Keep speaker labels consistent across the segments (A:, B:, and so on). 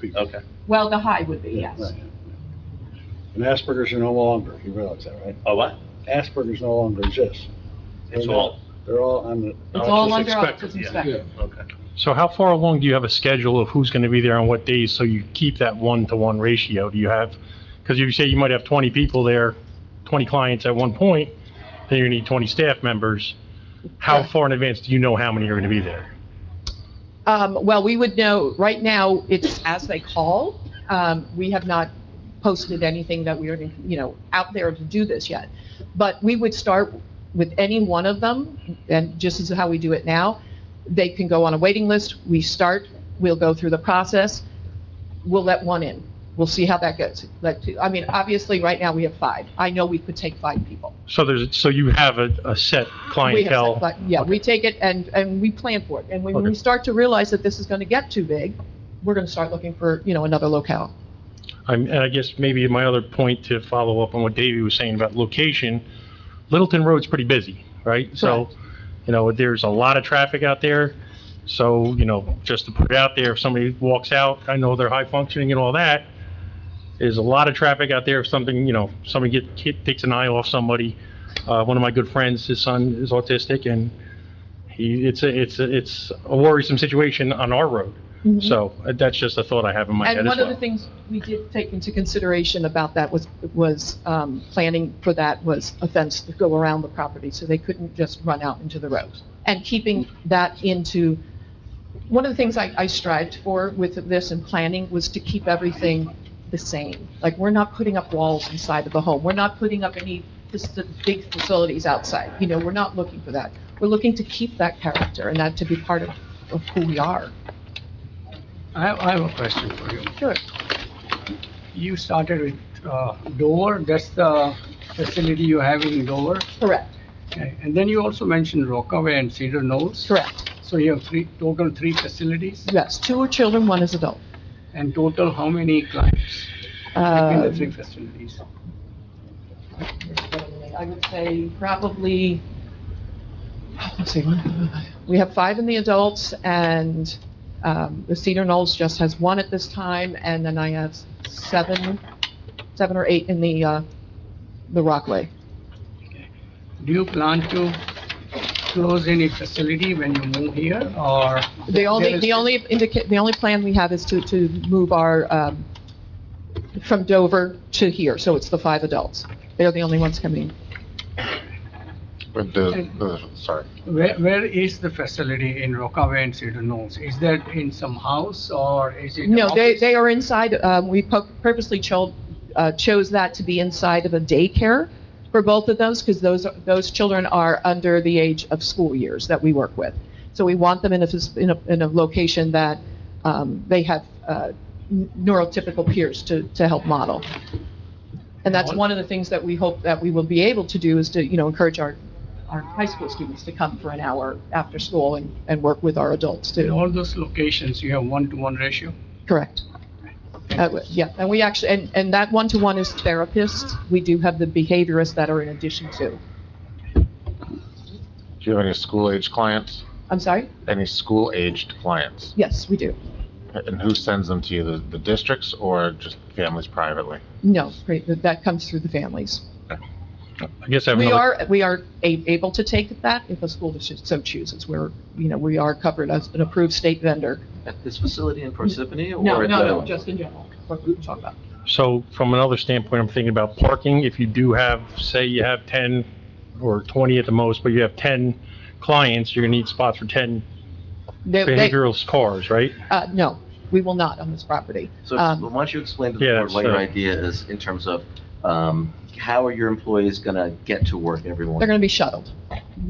A: feet.
B: Okay,
C: Well, the high would be,
A: Yeah,
C: yes.
A: right, yeah, yeah. And Asperger's are no longer, you realize that, right?
B: oh, what?
A: Asperger's no longer exists.
B: It's
A: They're
B: all,
A: not- They're all on the,
C: It's all
B: Autism
C: under
B: spectrum,
C: autism
B: yeah.
C: spectrum.
B: okay,
D: So how far along do you have a schedule of who's going to be there on what days, so you keep that one-to-one ratio? Do you have, because you say you might have 20 people there, 20 clients at one point, then you need 20 staff members. How far in advance do you know how many are going to be there?
C: Um, well, we would know, right now, it's as they call. Um, we have not posted anything that we are, you know, out there to do this yet. But we would start with any one of them, and just as how we do it now. They can go on a waiting list. We start, we'll go through the process. We'll let one in. We'll see how that goes. Let two, I mean, obviously, right now, we have five. I know we could take five people.
D: So there's, so you have a, a set
C: We have
D: clientele?
C: set, but, Yeah, we take it and, and we plan for it. And when we
D: Okay.
C: start to realize that this is going to get too big, we're going to start looking for, you know, another locale.
D: I'm- And I guess maybe my other point to follow up on what Davey was saying about location, Littleton Road's pretty busy, right? So, you know, there's a lot of traffic out there, so, you know, just to put it out there, if somebody walks out, I know they're high functioning and all that, there's a lot of traffic out there, if something, you know, somebody get, kid takes an eye off somebody. Uh, one of my good friends, his son is autistic, and he, it's a, it's a, it's a worrisome situation on our road. So uh, that's just a thought I have in my head as
C: Mm-hmm. And
D: well.
C: one of the things we did take into consideration about that was, was um, planning for that was a fence to go around the property, so they couldn't just run out into the road. And keeping that into, one of the things I I strived for with this and planning was to keep everything the same. Like, we're not putting up walls inside of the home, we're not putting up any just the big facilities outside, you know, we're not looking for that. We're looking to keep that character and that to be part of of who we are.
E: I have, I have a question for you.
C: Sure.
E: You started with uh, Dover, that's the facility you have in Dover.
C: Correct,
E: Okay. And then you also mentioned Rockaway and Cedar Knolls.
C: correct.
E: So you have three, total three facilities
C: Yes, two are children, one is adult.
E: and total how many clients in the three
C: Um,
E: facilities?
C: I would say probably, let's see, we have five in the adults, and um, the Cedar Knolls just has one at this time, and then I have seven, seven or eight in the, uh, the Rockaway.
E: Do you plan to close any facility when you move here or?
C: The only,
E: there is-
C: the only indicate, the only plan we have is to, to move our, um, from Dover to here, so it's the five adults. They're the only ones coming.
F: But the, the, sorry,
E: Where, where is the facility in Rockaway and Cedar Knolls? Is that in some house or is it?
C: No, they,
E: office?
C: they are inside, um, we pu- purposely cho- uh, chose that to be inside of a daycare for both of those, because those, are- those children are under the age of school years that we work with. So we want them in a, phys- in a, in a location that, um, they have, uh, n- neurotypical peers to, to help model. And that's one of the things that we hope that we will be able to do is to, you know, encourage our, our high school students to come for an hour after school and, and work with our adults
E: In
C: too.
E: all those locations, you have one-to-one ratio?
C: Correct. Uh, w- Yeah, and we actually, and, and that one-to-one is therapists. We do have the behaviorists that are in addition to.
F: do you have any school-aged clients?
C: I'm sorry?
F: Any school-aged clients?
C: Yes, we do.
F: And who sends them to you, the, the districts or just families privately?
C: No, great, that- that comes through the families.
D: I guess I have
C: We
D: another
C: are, we are a- able to take that if a school district so chooses. We're, you know, we are covered as an approved state vendor.
G: At this facility in Parsippany or?
C: No,
G: at
C: no,
G: the-
C: no, just in general, what we talk about.
D: So from another standpoint, I'm thinking about parking. If you do have, say you have 10 or 20 at the most, but you have 10 clients, you're going to need spots for 10
C: They- they-
D: behavioral cars, right?
C: uh, No, we will not on this property.
G: So
C: Um,
G: why don't you explain to
D: Yeah,
G: the board what your
D: that's, uh,
G: idea is in terms of, um, how are your employees gonna get to work every
C: They're
G: morning?
C: going to be shuttled.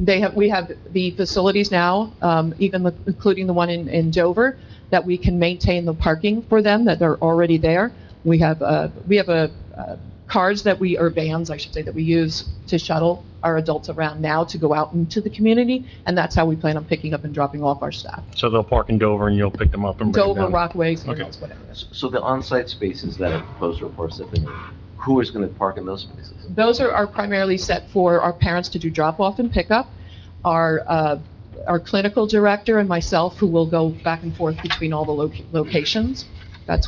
C: They have, we have the facilities now, um, even the- including the one in, in Dover, that we can maintain the parking for them, that they're already there. We have, uh, we have a, uh, cars that we, or vans, I should say, that we use to shuttle our adults around now to go out into the community, and that's how we plan on picking up and dropping off our staff.
D: So they'll park in Dover and you'll pick them up and bring them
C: Dover,
D: down.
C: Rockaway,
D: Okay.
C: Sandals, whatever.
G: So the on-site spaces that are proposed for Parsippany, who is gonna park in those spaces?
C: Those are, are primarily set for our parents to do drop-off and pickup. Our, uh, our clinical director and myself, who will go back and forth between all the loc- locations. That's